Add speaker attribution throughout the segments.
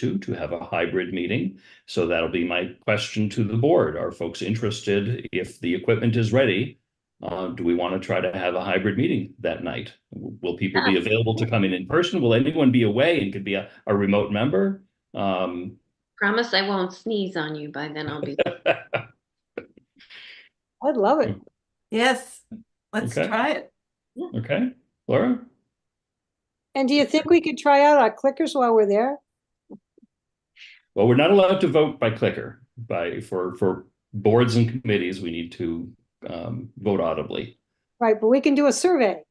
Speaker 1: to, to have a hybrid meeting. So that'll be my question to the board. Are folks interested if the equipment is ready? Uh, do we want to try to have a hybrid meeting that night? Will people be available to come in in person? Will anyone be away and could be a, a remote member? Um,
Speaker 2: Promise I won't sneeze on you by then. I'll be.
Speaker 3: I'd love it.
Speaker 4: Yes, let's
Speaker 1: Mm. Okay.
Speaker 4: try it.
Speaker 1: okay, Laura?
Speaker 3: And do you think we could try out our clickers while we're there?
Speaker 1: Well, we're not allowed to vote by clicker, by, for, for boards and committees, we need to, um, vote audibly.
Speaker 3: Right, but we can do a survey.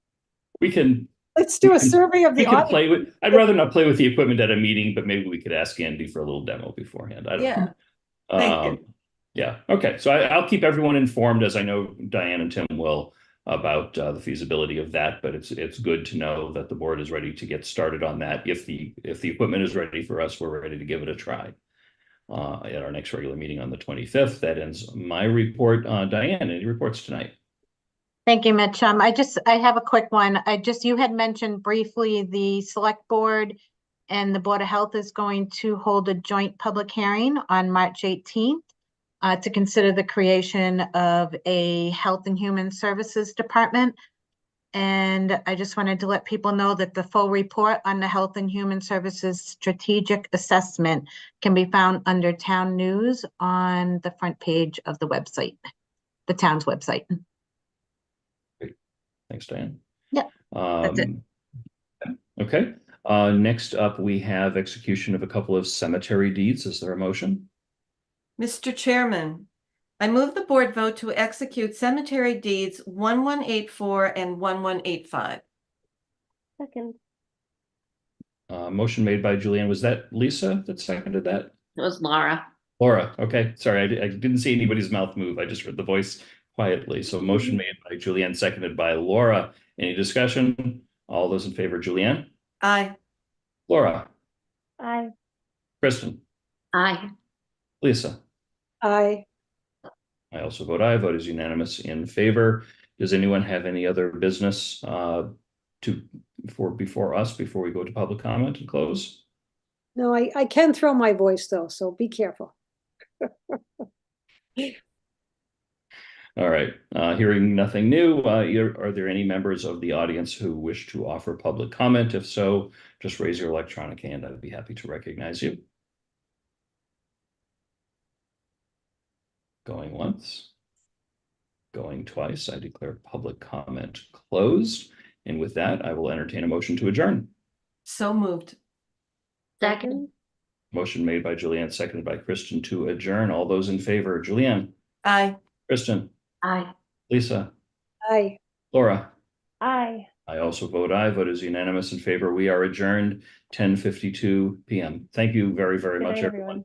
Speaker 1: We can,
Speaker 3: Let's do
Speaker 1: We
Speaker 3: a
Speaker 1: can-
Speaker 3: survey of
Speaker 1: we
Speaker 3: the
Speaker 1: can
Speaker 3: audience.
Speaker 1: play with, I'd rather not play with the equipment at a meeting, but maybe we could ask Andy for a little demo beforehand. I don't know.
Speaker 4: Yeah, thank you.
Speaker 1: Um, yeah, okay, so I, I'll keep everyone informed, as I know Diane and Tim will, about uh, the feasibility of that, but it's, it's good to know that the board is ready to get started on that. If the, if the equipment is ready for us, we're ready to give it a try. Uh, at our next regular meeting on the twenty-fifth, that ends my report. Uh, Diane, any reports tonight?
Speaker 5: Thank you, Mitch. Um, I just, I have a quick one. I just, you had mentioned briefly the select board and the Board of Health is going to hold a joint public hearing on March eighteenth uh, to consider the creation of a Health and Human Services Department. And I just wanted to let people know that the full report on the Health and Human Services Strategic Assessment can be found under Town News on the front page of the website, the town's website.
Speaker 1: Thanks, Diane.
Speaker 5: Yeah, that's it.
Speaker 1: Um, okay, uh, next up, we have execution of a couple of cemetery deeds. Is there a motion?
Speaker 4: Mr. Chairman, I move the board vote to execute cemetery deeds one one eight four and one one eight five.
Speaker 2: Second.
Speaker 1: Uh, motion made by Julianne. Was that Lisa that seconded that?
Speaker 2: It was Laura.
Speaker 1: Laura, okay, sorry, I, di- I didn't see anybody's mouth move. I just heard the voice quietly. So motion made by Julianne, seconded by Laura. Any discussion? All those in favor, Julianne?
Speaker 4: Aye.
Speaker 1: Laura,
Speaker 2: Aye.
Speaker 1: Kristen,
Speaker 2: Aye.
Speaker 1: Lisa?
Speaker 3: I,
Speaker 1: I also vote aye. Vote is unanimous in favor. Does anyone have any other business uh to for before us, before we go to public comment and close?
Speaker 3: no, I, I can throw my voice though, so be careful.
Speaker 1: All right, uh, hearing nothing new, uh, you're- are there any members of the audience who wish to offer public comment? If so, just raise your electronic hand. I'd be happy to recognize you. Going once. Going twice. I declare public comment closed. And with that, I will entertain a motion to adjourn.
Speaker 4: So moved.
Speaker 2: Second.
Speaker 1: Motion made by Julianne, seconded by Kristen to adjourn. All those in favor, Julianne,
Speaker 4: Aye.
Speaker 1: Kristen,
Speaker 2: Aye.
Speaker 1: Lisa,
Speaker 3: I.
Speaker 1: Laura.
Speaker 3: I.
Speaker 1: I also vote aye. Vote is unanimous in favor. We are adjourned ten fifty-two PM. Thank you very, very much, everyone.